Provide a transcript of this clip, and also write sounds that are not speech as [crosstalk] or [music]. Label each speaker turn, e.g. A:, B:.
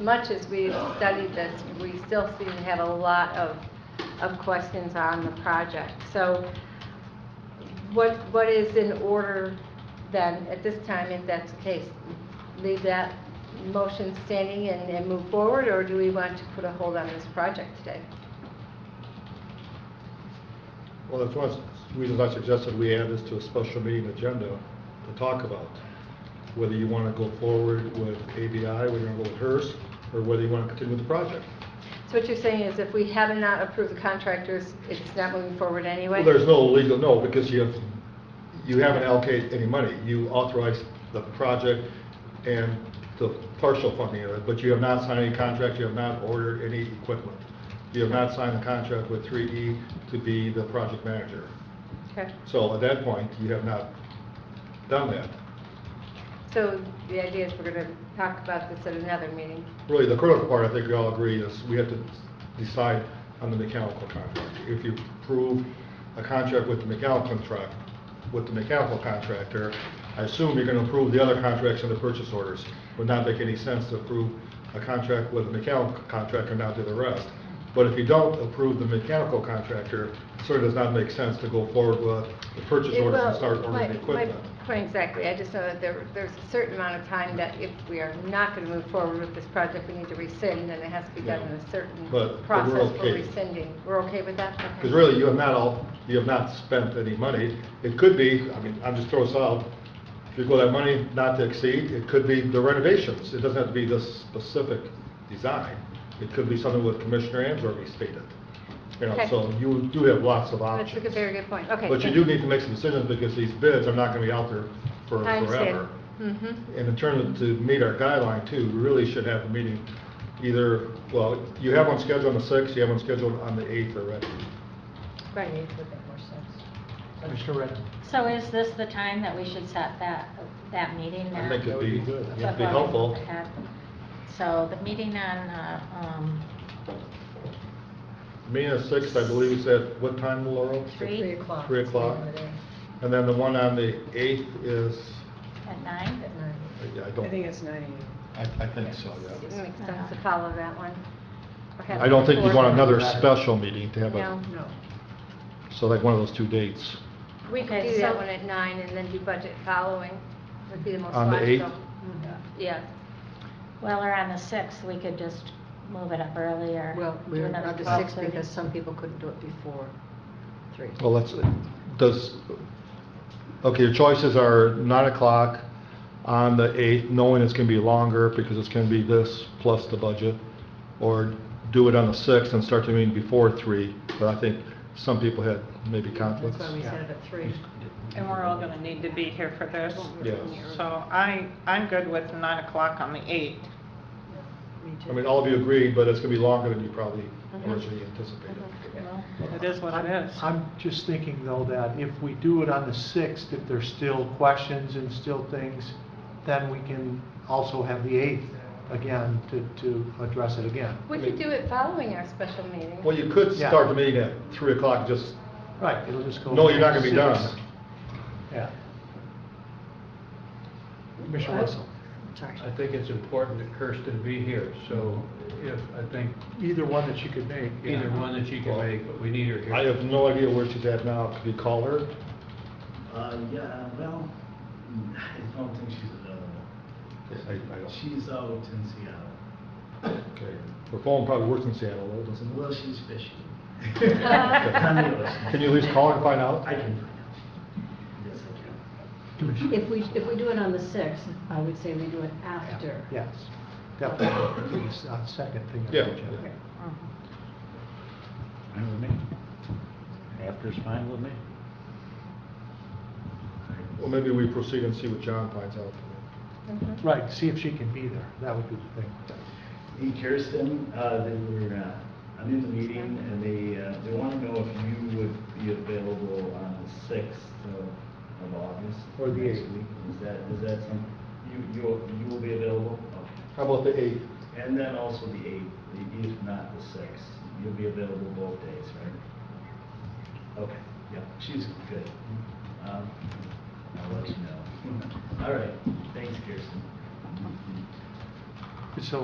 A: much as we've studied this, we still seem to have a lot of, of questions on the project. So what, what is in order then at this time, if that's the case? Leave that motion standing and, and move forward, or do we want to put a hold on this project today?
B: Well, that's one of the reasons I suggested we add this to a special meeting agenda to talk about. Whether you want to go forward with ABI, whether you want to go with HERS, or whether you want to continue with the project.
A: So what you're saying is if we have not approved the contractors, it's not moving forward anyway?
B: Well, there's no legal, no, because you have, you haven't allocated any money. You authorized the project and the partial funding of it, but you have not signed any contract, you have not ordered any equipment. You have not signed a contract with 3E to be the project manager.
A: Okay.
B: So at that point, you have not done that.
A: So the idea is we're going to talk about this at another meeting.
B: Really, the critical part, I think we all agree, is we have to decide on the mechanical contract. If you approve a contract with the mechanical contract, with the mechanical contractor, I assume you're gonna approve the other contracts and the purchase orders. Would not make any sense to approve a contract with a mechanical contractor and not do the rest. But if you don't approve the mechanical contractor, it certainly does not make sense to go forward with the purchase
A: It
B: orders and
A: will-
B: start
A: my-
B: ordering the
A: my
B: equipment.
A: Point exactly, I just know that there, there's a certain amount of time that if we are not going to move forward with this project, we need to rescind, and it has to be done in a certain
B: But- but we're
A: process for
B: okay.
A: rescinding. We're okay with that? Okay.
B: Because really, you have not all, you have not spent any money. It could be, I mean, I'm just throwing this out, if you go that money not to exceed, it could be the renovations. It doesn't have to be this specific design. It could be something with Commissioner Answorthy stated. You know,
A: Okay.
B: so you do have lots of
A: That's a
B: options.
A: good- very good point, okay.
B: But you do need to make some decisions because these bids are not gonna be out there for
A: I
B: forever.
A: understand. Mm-hmm,
B: And in terms of, to meet our guideline too, we really should have a meeting either, well, you have one scheduled on the sixth, you have one scheduled on the eighth already.
A: right.
C: Commissioner Redden.
D: So is this the time that we should set that, that meeting now?
B: I think it'd be,
C: That would be good.
B: it'd be helpful.
D: So the meeting on, uh, um,
B: Me and six, I believe, is at what time, Laurel?
D: Three. Three
E: o'clock.
B: Three o'clock. And then the one on the eighth is,
D: at nine?
B: I
E: I think
B: don't,
E: it's nine AM.
B: I, I think so,
A: It
B: yeah.
A: makes sense to follow that one. Or have
B: I don't think we
A: it
B: want
A: before.
B: another special meeting to have
A: No.
B: a,
E: No.
B: so like one of those two dates.
A: We could
D: Okay,
A: do that
D: so-
A: one at nine and then do budget following, would be the most
B: On the eighth?
A: logical. Mm-hmm. Yeah,
D: Well, or on the sixth, we could just move it up earlier.
F: Well,
D: do
F: we're
D: another
F: not the sixth
D: 12:30.
F: because some people couldn't do it before three.
B: Well, let's, does, okay, your choices are nine o'clock on the eighth, knowing it's gonna be longer because it's gonna be this plus the budget. Or do it on the sixth and start the meeting before three, but I think some people had maybe conflicts.
F: That's why we set it at three.
G: And we're all gonna need to be here for this.
B: Yes.
G: So I, I'm good with nine o'clock on the eighth.
F: Me
B: I mean,
F: too.
B: all of you agreed, but it's gonna be longer than you probably
F: Mm-hmm.
B: originally anticipated.
D: Well,
G: It is what it is.
C: I'm just thinking though that if we do it on the 6th, if there's still questions and still things, then we can also have the 8th again to, to address it again.
A: we could do it following our special meeting.
B: Well, you could
C: Yeah.
B: start the meeting at three o'clock, just,
C: Right, it'll just go.
B: no, you're not gonna be done.
C: Six. Yeah. Commissioner Russell.
F: Sorry.
H: I think it's important that Kirsten be here, so if, I think
C: Either one that you could make. yeah.
H: either one that she can make, but we need her here.
B: I have no idea where she's at now. Could you call her?
I: Uh, yeah, well, [laughs] I don't think she's available.
B: I, I don't.
I: She's out in Seattle.
B: Okay. Her phone probably works in Seattle, though, doesn't it?
I: Well, she's fishing. On the ocean.
B: Can you at least call and find out?
I: I can find out. Yes, I can.
F: If we, if we do it on the sixth, I would say we do it after.
C: Yes, definitely, please, uh, second thing. on the
B: Yeah.
C: agenda.
F: Okay.
J: Fine with me. After's fine with me.
B: Well, maybe we proceed and see what John finds out.
C: Right, see if she can be there, that would be the thing.
I: And Kirsten, uh, they were, uh, I'm in the meeting, and they, uh, they want to know if you would be available on the sixth of, of August.
C: Or the
I: next
C: 8th.
I: week. Is that, is that some, you, you, you will be available? Okay.
B: How about the eighth?
I: And then also the eighth, the- if not the sixth, you'll be available both days, right? Okay, yeah, she's good. Um, I'll [laughs] let you know. All right, thanks, Kirsten.
C: So